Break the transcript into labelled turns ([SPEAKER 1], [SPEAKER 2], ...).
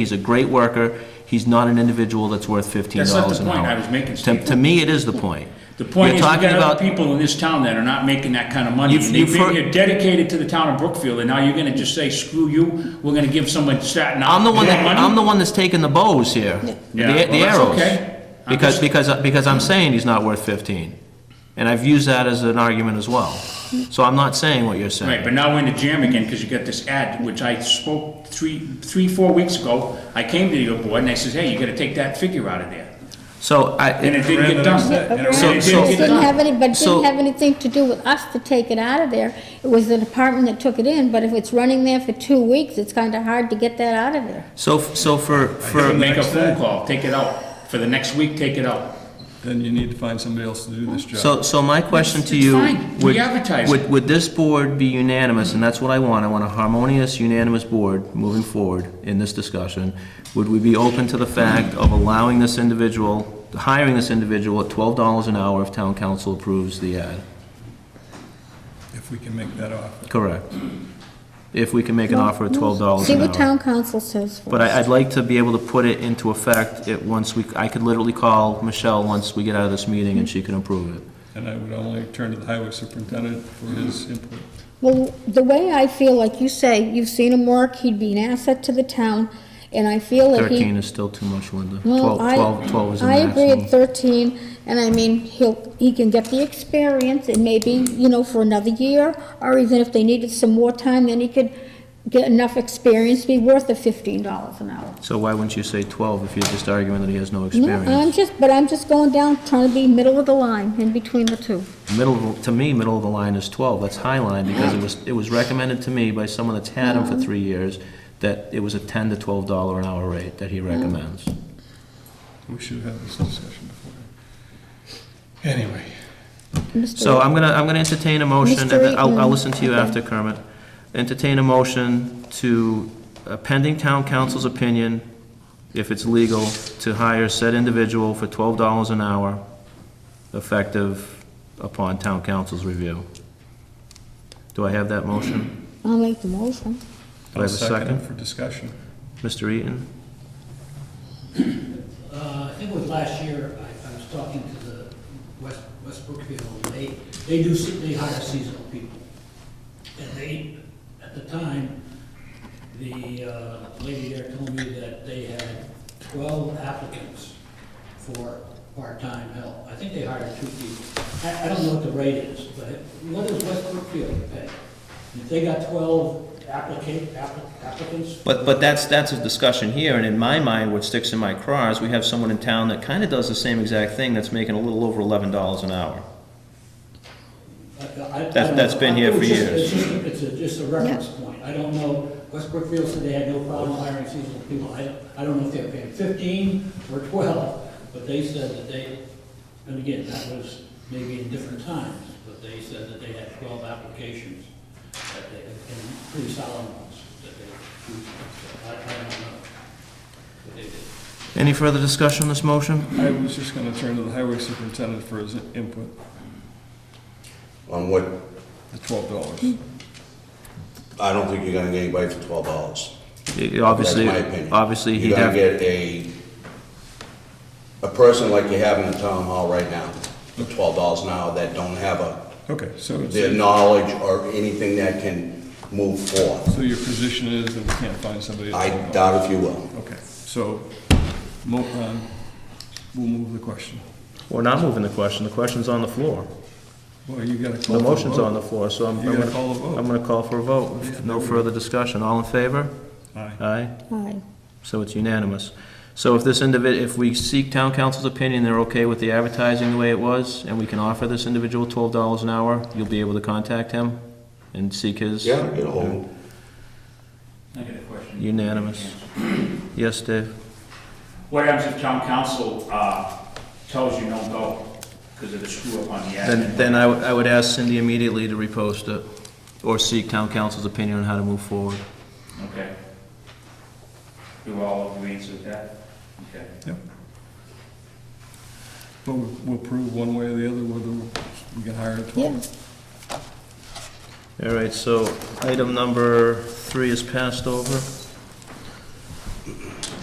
[SPEAKER 1] He's a great worker. He's not an individual that's worth fifteen
[SPEAKER 2] That's not
[SPEAKER 1] dollars
[SPEAKER 2] the
[SPEAKER 1] an hour.
[SPEAKER 2] point I was making,
[SPEAKER 1] To,
[SPEAKER 2] Steve.
[SPEAKER 1] to me, it is the point.
[SPEAKER 2] The
[SPEAKER 1] You're
[SPEAKER 2] point is, we
[SPEAKER 1] talking
[SPEAKER 2] got
[SPEAKER 1] about-
[SPEAKER 2] other people in this town that are not making that kind of money.
[SPEAKER 1] You've-
[SPEAKER 2] And
[SPEAKER 1] you've
[SPEAKER 2] they've been
[SPEAKER 1] heard-
[SPEAKER 2] here dedicated to the town of Brookfield, and now you're gonna just say, screw you, we're gonna give someone Staten
[SPEAKER 1] I'm
[SPEAKER 2] Island
[SPEAKER 1] the one
[SPEAKER 2] more
[SPEAKER 1] that, I'm
[SPEAKER 2] money?
[SPEAKER 1] the one that's taking the bows here, the the
[SPEAKER 2] Yeah, well, that's
[SPEAKER 1] arrows.
[SPEAKER 2] okay. I'm
[SPEAKER 1] Because,
[SPEAKER 2] just-
[SPEAKER 1] because, because I'm saying he's not worth fifteen. And I've used that as an argument as well. So I'm not saying what you're
[SPEAKER 2] Right,
[SPEAKER 1] saying.
[SPEAKER 2] but now we're in the jam again, because you got this ad, which I spoke three, three, four weeks ago. I came to your board and I says, hey, you gotta take that figure out of there.
[SPEAKER 1] So
[SPEAKER 2] And
[SPEAKER 1] I,
[SPEAKER 2] it didn't get done. And it
[SPEAKER 1] So-
[SPEAKER 2] really
[SPEAKER 1] so-
[SPEAKER 2] didn't get
[SPEAKER 3] Didn't have
[SPEAKER 2] done.
[SPEAKER 3] any, but
[SPEAKER 1] So-
[SPEAKER 3] didn't have anything to do with us to take it out of there. It was the department that took it in, but if it's running there for two weeks, it's kind of hard to get that out of there.
[SPEAKER 1] so, so for,
[SPEAKER 2] So
[SPEAKER 1] for,
[SPEAKER 2] Make a
[SPEAKER 4] next
[SPEAKER 2] phone
[SPEAKER 4] day.
[SPEAKER 2] call, take it out. For the next week, take it out.
[SPEAKER 4] then you need to find somebody else to do this job.
[SPEAKER 1] so, so my question to you.
[SPEAKER 2] It's fine. We
[SPEAKER 1] would-
[SPEAKER 2] advertise it.
[SPEAKER 1] Would, would this board be unanimous, and that's what I want, I want a harmonious, unanimous board moving forward in this discussion. Would we be open to the fact of allowing this individual, hiring this individual at twelve dollars an hour if town council approves the ad?
[SPEAKER 4] If we can make that offer.
[SPEAKER 1] Correct. If we can make an offer at twelve dollars
[SPEAKER 3] See
[SPEAKER 1] an
[SPEAKER 3] what
[SPEAKER 1] hour.
[SPEAKER 3] town council says
[SPEAKER 1] But I,
[SPEAKER 3] first.
[SPEAKER 1] I'd like to be able to put it into effect at once we, I could literally call Michelle once we get out of this meeting and she can approve it.
[SPEAKER 4] And I would only turn to the highway superintendent for his input.
[SPEAKER 3] Well, the way I feel, like you say, you've seen him work, he'd be an asset to the town, and I feel that he.
[SPEAKER 1] Thirteen is still too much, Linda.
[SPEAKER 3] Well,
[SPEAKER 1] Twelve,
[SPEAKER 3] I-
[SPEAKER 1] twelve, twelve is the
[SPEAKER 3] I agree
[SPEAKER 1] maximum.
[SPEAKER 3] at 13, and I mean, he'll, he can get the experience, and maybe, you know, for another year, or even if they needed some more time, then he could get enough experience to be worth the $15 an hour.
[SPEAKER 1] So why wouldn't you say twelve if you're just arguing that he has no
[SPEAKER 3] No, I'm
[SPEAKER 1] experience?
[SPEAKER 3] just, but I'm just going down, trying to be middle of the line, in between the two.
[SPEAKER 1] Middle, of- to me, middle of the line is twelve, that's high line, because it was, it was recommended to me by someone that's had him for three years, that it was a ten to twelve dollar an hour rate that he recommends.
[SPEAKER 4] We should have this discussion before. Anyway,
[SPEAKER 3] Mr.
[SPEAKER 1] So I'm gonna, I'm gonna entertain a motion, and then I'll, I'll
[SPEAKER 3] Mr.
[SPEAKER 1] listen to you
[SPEAKER 3] Eaton,
[SPEAKER 1] after Kermit. Entertain a motion to, uh, pending town council's opinion, if it's legal, to hire said individual for twelve dollars an hour, effective upon town council's review. Do I have that motion?
[SPEAKER 3] I'll make the motion.
[SPEAKER 1] Do I have a
[SPEAKER 4] I'll second
[SPEAKER 1] second?
[SPEAKER 4] it for discussion.
[SPEAKER 1] Mr. Eaton?
[SPEAKER 5] Uh, I think it was last year, I, I was talking to the West, West Brookfield, they, they do, se- they hire seasonal people. And they, at the time, the uh, lady there told me that they had twelve applicants for part-time help. I think they hired two people. I, I don't know what the rate is, but what does West Brookfield pay? If they got twelve applicant, applic- applicants,
[SPEAKER 1] But, but that's, that's a discussion here, and in my mind, what sticks in my craw is we have someone in town that kinda does the same exact thing, that's making a little over eleven dollars an hour. That's-
[SPEAKER 5] That's,
[SPEAKER 1] that's been here for years.
[SPEAKER 5] It's just, it's a, just a reference point. I don't know, West Brookfield said they had no problem hiring seasonal people. I don't, I don't know if they're paying fifteen or twelve, but they said that they, and again, that was maybe in different times, but they said that they had twelve applications, that they, and pretty solid ones, that they, so I, I don't know what they did.
[SPEAKER 1] Any further discussion on this motion?
[SPEAKER 4] I was just gonna turn to the highway superintendent for his input,
[SPEAKER 6] On what,
[SPEAKER 4] the twelve dollars.
[SPEAKER 6] I don't think you're gonna get anybody for twelve dollars.
[SPEAKER 1] It- it Obviously,
[SPEAKER 6] That's my opinion.
[SPEAKER 1] obviously, he'd
[SPEAKER 6] You're gonna
[SPEAKER 1] have,
[SPEAKER 6] get a, a person like you have in the town hall right now, for twelve dollars an hour, that don't have a,
[SPEAKER 4] Okay, so, it's-
[SPEAKER 6] their knowledge or anything that can move forth.
[SPEAKER 4] so your position is that we can't find somebody. at
[SPEAKER 6] I
[SPEAKER 4] $12?
[SPEAKER 6] doubt if you will.
[SPEAKER 4] Okay, so, mo- um, we'll move the question.
[SPEAKER 1] we're not moving the question, the question's on the floor.
[SPEAKER 4] Well, you gotta call.
[SPEAKER 1] The
[SPEAKER 4] for a
[SPEAKER 1] motion's
[SPEAKER 4] vote.
[SPEAKER 1] on the floor, so I'm,
[SPEAKER 4] You
[SPEAKER 1] I'm
[SPEAKER 4] gotta call a
[SPEAKER 1] gonna,
[SPEAKER 4] vote.
[SPEAKER 1] I'm gonna call for a vote. No further discussion, all in favor?
[SPEAKER 4] Aye.
[SPEAKER 1] Aye,
[SPEAKER 3] Aye.
[SPEAKER 1] so it's unanimous. So if this individ, if we seek town council's opinion, they're okay with the advertising the way it was, and we can offer this individual twelve dollars an hour, you'll be able to contact him and seek his?
[SPEAKER 6] Yeah, you know,
[SPEAKER 2] I got a question.
[SPEAKER 1] Unanimous. Yes, Dave?
[SPEAKER 2] What happens if town council, uh, tells you no go because of the screw up on the ad?
[SPEAKER 1] Then, then I would, I would ask Cindy immediately to repost it, or seek town council's opinion on how to move forward.
[SPEAKER 2] Okay. You all agree with that? Okay.
[SPEAKER 4] Yep. But we- we'll prove one way or the other whether we can hire a
[SPEAKER 3] Yeah,
[SPEAKER 4] 12.
[SPEAKER 1] All right, so item number three is passed over.